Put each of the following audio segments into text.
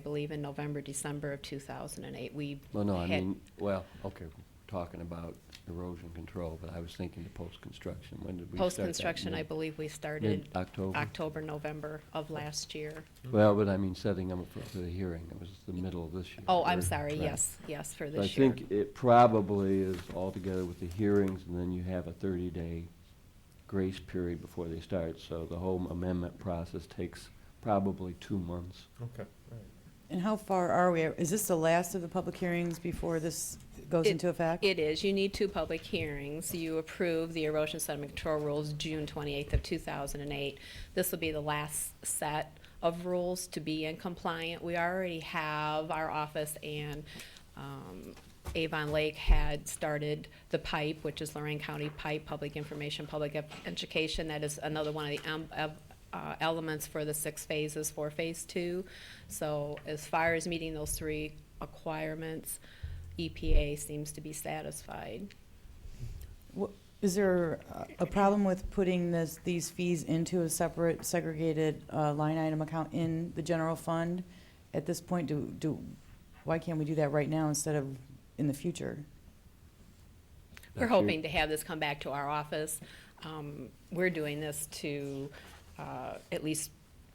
I believe in November, December of 2008. We. Well, no, I had- mean, well, okay, we're talking about erosion control, but I was thinking the post-construction, when did we start that? Post-construction, I Mid- believe we started Mid-October? October, November of last year. Well, but I mean, setting them up for- for the hearing, it was the middle of this year. Oh, I'm or- sorry, right. yes, yes, for So I this year. think it probably is all together with the hearings, and then you have a thirty-day grace period before they start, so the whole amendment process takes probably two months. Okay, all right. And how far are we? Is this the last of the public hearings before this goes It- into effect? It is. You need two public hearings. You approve the erosion sediment control rules June 28th of 2008. This will be the last set of rules to be in compliant. We already have, our office and um, Avon Lake had started the PIPE, which is Lorraine County PIPE, Public Information, Public Ed- Education. That is another one of the em- of uh, elements for the six phases for phase two. So as far as meeting those three requirements, EPA E seems to be satisfied. Wha- Is there a- a problem with putting this, these fees into a separate segregated uh, line item account in the general fund? At this point, do, do, why can't we do that right now instead of in the future? We're That's your- hoping to have this come back to our office. Um, We're doing this to uh, at least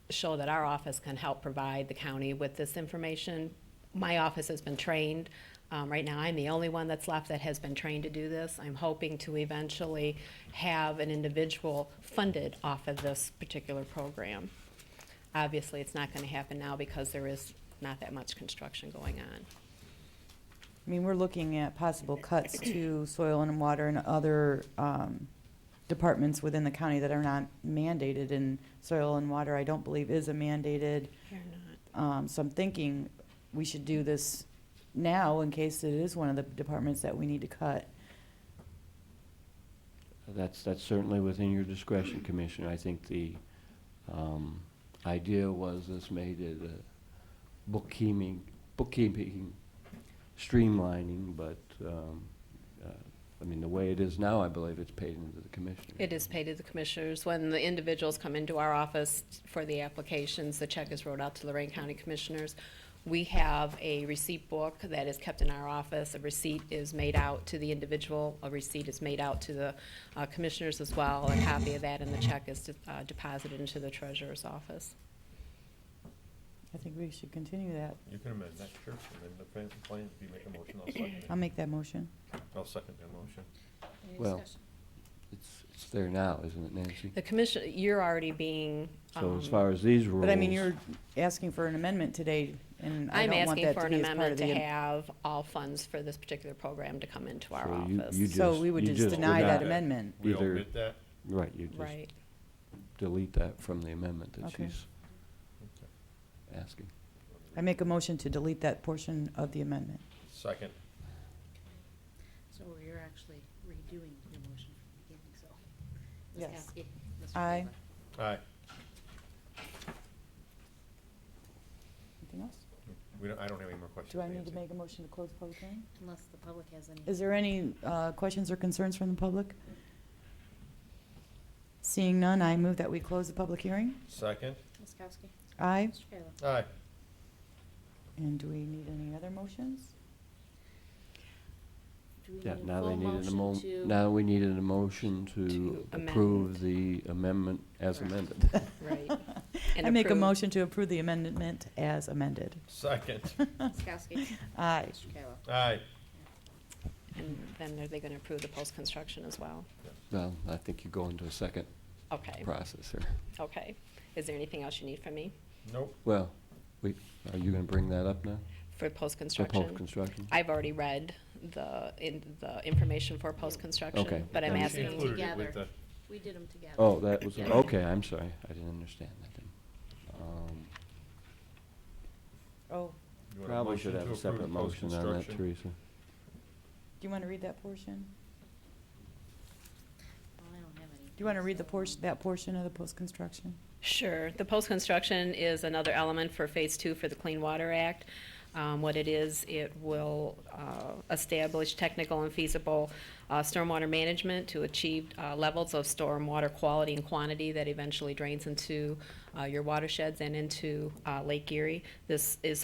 show that our office can help provide the county with this information. My office has been trained. Um, Right now, I'm the only one that's left that has been trained to do this. I'm hoping to eventually have an individual funded off of this particular program. Obviously, it's not going to happen now because there is not that much construction going on. I mean, we're looking at possible cuts to soil and water and other um, departments within the county that are not mandated, and soil and water, I don't believe, is a mandated You're not. Um, so I'm thinking we should do this now in case it is one of the departments that we need to cut. That's, that's certainly within your discretion, Commissioner. I think the um, idea was this made it a bookkeeping, bookkeeping streamlining, but, um, uh, I mean, the way it is now, I believe it's paid into the commissioner. It is paid to the commissioners. When the individuals come into our office for the applications, the check is wrote out to Lorraine County Commissioners. We have a receipt book that is kept in our office. A receipt is made out to the individual. A receipt is made out to the uh, commissioners as well. A copy of that and the check is uh, deposited into the treasurer's office. I think we should continue that. You can amend that, sure, amend the plan, plan. if you make a motion, I'll second I'll it. make that motion. I'll second that motion. Any Well, discussion? It's, it's there now, isn't it, Nancy? The commission, you're already being. So as um, far as these rules. But I mean, you're asking for an amendment today, and I I'm don't want asking that for to an be as part amendment of to the. have all funds for this particular program to come into our So you- office. you So just- we would you just just deny deny that it. amendment. We Either- omit that? Right, you just Right. delete that from the amendment that Okay. she's asking. I make a motion to delete that portion of the amendment. Second, So you're actually redoing your motion from the beginning, so. Ms. Yes. Kowski, Mr. Aye. Favor. aye. Anything else? We don't, I don't have any more questions. Do I need to Nancy. make a motion to close public hearing? Unless the public has any. Is there any uh, questions or concerns from the public? Seeing none, I move that we close the public hearing. Second, Ms. Kowski, Aye. Mr. Kayla. aye. And do we need any other motions? Do we need Yeah, a now they full needed a motion mo, to- now we needed a motion to To approve the amendment as Correct. amended. Right. And I make a approve- motion to approve the amendment as amended. Second, Ms. Kowski, Aye. Mr. Kayla. aye. And then are they going to approve the post-construction as well? Well, I think you go into a second Okay, process here. okay. Is there anything else you need from me Nope, Well, we, are you gonna bring that up now? for For post-construction? post-construction? I've already read the, in, the information for Okay. post-construction, but I'm Yeah, we she them asking, included it with the, together. We did them together. Oh, that was, Yeah. okay, I'm sorry, I didn't understand that then. Um, Oh, you want a Probably should have motion to a approve the separate motion on that, post-construction? Teresa. do you want to read that portion? Well, I don't have any. Do you want to read the portion, that portion of the post-construction? Sure. The post-construction is another element for Phase Two for the Clean Water Act. Um, What it is, it will uh, establish technical and feasible uh, stormwater management to achieve uh, levels of stormwater quality and quantity that eventually drains into uh, your watersheds and into uh, Lake Erie. This is